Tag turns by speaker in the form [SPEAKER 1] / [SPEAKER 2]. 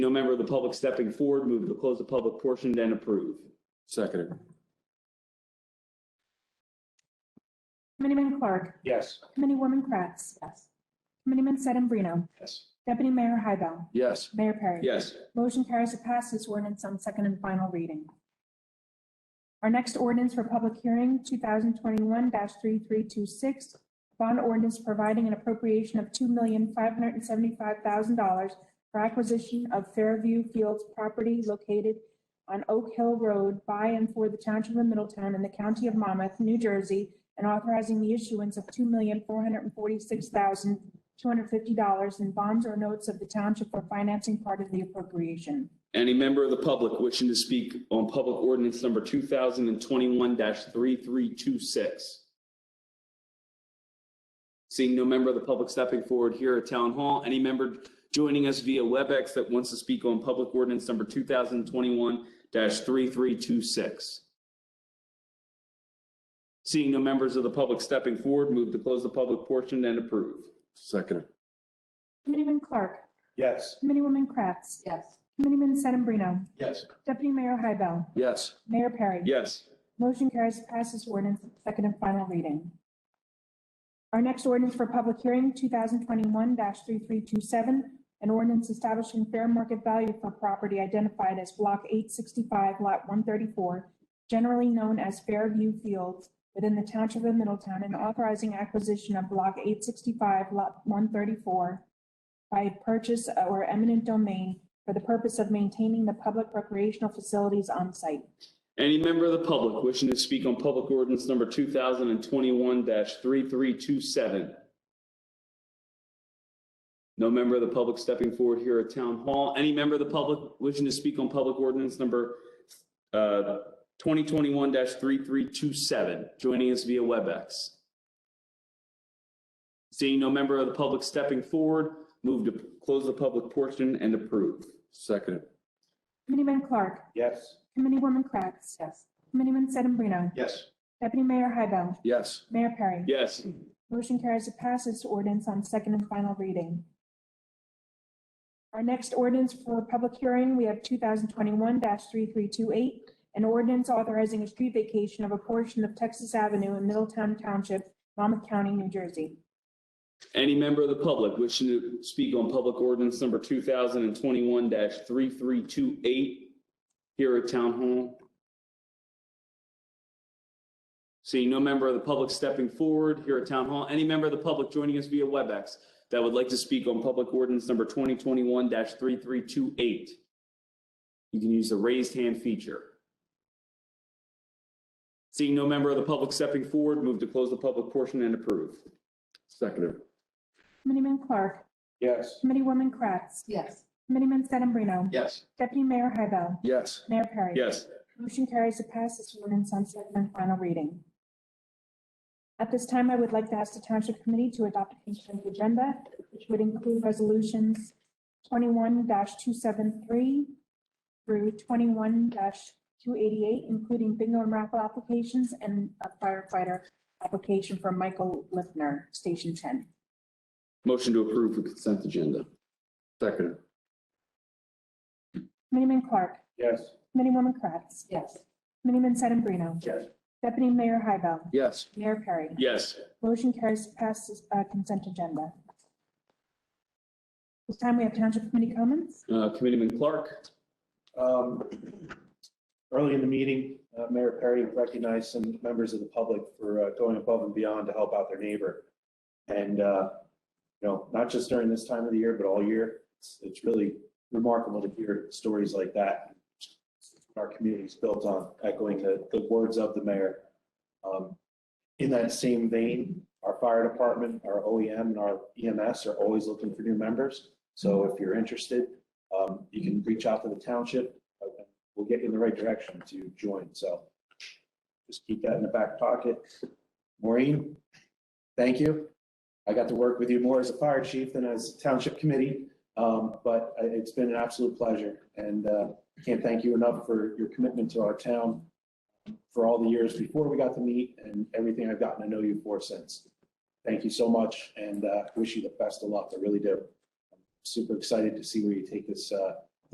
[SPEAKER 1] No member of the public stepping forward, move to close the public portion, then approve.
[SPEAKER 2] Seconded.
[SPEAKER 3] Committeeman Clark.
[SPEAKER 1] Yes.
[SPEAKER 3] Committeewoman Kratz. Yes. Committeeman Sedambrino.
[SPEAKER 1] Yes.
[SPEAKER 3] Deputy Mayor Hybel.
[SPEAKER 2] Yes.
[SPEAKER 3] Mayor Perry.
[SPEAKER 1] Yes.
[SPEAKER 3] Motion carries to pass this ordinance on second and final reading. Our next ordinance for public hearing, 2021-3326, bond ordinance providing an appropriation of $2,575,000 for acquisition of Fairview Fields property located on Oak Hill Road by and for the Township of Middletown in the County of Monmouth, New Jersey, and authorizing the issuance of $2,446,000 $250 in bonds or notes of the township for financing part of the appropriation.
[SPEAKER 1] Any member of the public wishing to speak on public ordinance number two thousand and twenty-one three three two six? Seeing no member of the public stepping forward here at Town Hall, any member joining us via WebEx that wants to speak on public ordinance number two thousand and twenty-one three three two six? Seeing no members of the public stepping forward, move to close the public portion and approve.
[SPEAKER 2] Seconded.
[SPEAKER 3] Committeeman Clark.
[SPEAKER 1] Yes.
[SPEAKER 3] Committeewoman Kratz.
[SPEAKER 4] yes,
[SPEAKER 3] Committeeman Sedambrino.
[SPEAKER 1] Yes.
[SPEAKER 3] Deputy Mayor Hybel.
[SPEAKER 2] Yes.
[SPEAKER 3] Mayor Perry.
[SPEAKER 1] Yes.
[SPEAKER 3] Motion carries to pass this ordinance on second and final reading. Our next ordinance for public hearing, 2021-3327, an ordinance establishing fair market value for property identified as Block 865, Lot 134, generally known as Fairview Fields, within the Township of Middletown, and authorizing acquisition of Block 865, Lot 134 by purchase or eminent domain for the purpose of maintaining the public recreational facilities on site.
[SPEAKER 1] Any member of the public wishing to speak on public ordinance number two thousand and twenty-one three three two seven? No member of the public stepping forward here at Town Hall. Any member of the public wishing to speak on public ordinance number uh, twenty twenty-one three three two seven, joining us via WebEx? Seeing no member of the public stepping forward, move to close the public portion and approve.
[SPEAKER 2] Seconded.
[SPEAKER 3] Committeeman Clark.
[SPEAKER 1] Yes.
[SPEAKER 3] Committeewoman Kratz.
[SPEAKER 4] yes,
[SPEAKER 3] Committeeman Sedambrino.
[SPEAKER 1] Yes.
[SPEAKER 3] Deputy Mayor Hybel.
[SPEAKER 2] Yes.
[SPEAKER 3] Mayor Perry.
[SPEAKER 1] Yes.
[SPEAKER 3] Motion carries to pass this ordinance on second and final reading. Our next ordinance for public hearing, we have 2021-3328, an ordinance authorizing a street vacation of a portion of Texas Avenue in Middletown Township, Monmouth County, New Jersey.
[SPEAKER 1] Any member of the public wishing to speak on public ordinance number two thousand and twenty-one three three two eight here at Town Hall? Seeing no member of the public stepping forward here at Town Hall, any member of the public joining us via WebEx that would like to speak on public ordinance number twenty twenty-one three three two eight? You can use the raised hand feature. Seeing no member of the public stepping forward, move to close the public portion and approve.
[SPEAKER 2] Seconded.
[SPEAKER 3] Committeeman Clark.
[SPEAKER 1] Yes.
[SPEAKER 3] Committeewoman Kratz.
[SPEAKER 4] yes,
[SPEAKER 3] Committeeman Sedambrino.
[SPEAKER 1] Yes.
[SPEAKER 3] Deputy Mayor Hybel.
[SPEAKER 2] Yes.
[SPEAKER 3] Mayor Perry.
[SPEAKER 1] Yes.
[SPEAKER 3] Motion carries to pass this ordinance on second and final reading. At this time, I would like to ask the Township Committee to adopt a consent agenda, which would include resolutions twenty-one two seven three through twenty-one two eighty-eight, including bingo and raffle applications and a firefighter application from Michael Lifner, Station Ten.
[SPEAKER 1] Motion to approve the consent agenda.
[SPEAKER 2] Seconded.
[SPEAKER 3] Committeeman Clark.
[SPEAKER 1] Yes.
[SPEAKER 3] Committeewoman Kratz.
[SPEAKER 4] yes,
[SPEAKER 3] Committeeman Sedambrino.
[SPEAKER 1] Yes.
[SPEAKER 3] Deputy Mayor Hybel.
[SPEAKER 2] Yes.
[SPEAKER 3] Mayor Perry.
[SPEAKER 1] Yes.
[SPEAKER 3] Motion carries to pass this uh, consent agenda. This time we have Township Committee comments.
[SPEAKER 1] Uh, Committeeman Clark?
[SPEAKER 5] Um, Early in the meeting, uh, Mayor Perry recognized some members of the public for uh, going above and beyond to help out their neighbor. And, uh, you know, not just during this time of the year, but all year. It's- It's really remarkable to hear stories like that. Our community's built on echoing the the words of the mayor. Um, In that same vein, our fire department, our OEM, and our EMS are always looking for new members. So if you're interested, um, you can reach out to the township. uh, We'll get you in the right direction to join, so just keep that in the back pocket. Maureen, thank you. I got to work with you more as a fire chief than as township committee, um, but I- it's been an absolute pleasure. And uh, can't thank you enough for your commitment to our town for all the years before we got to meet and everything I've gotten to know you for since. Thank you so much and uh, wish you the best of luck, I really do super excited to see where you take this, uh,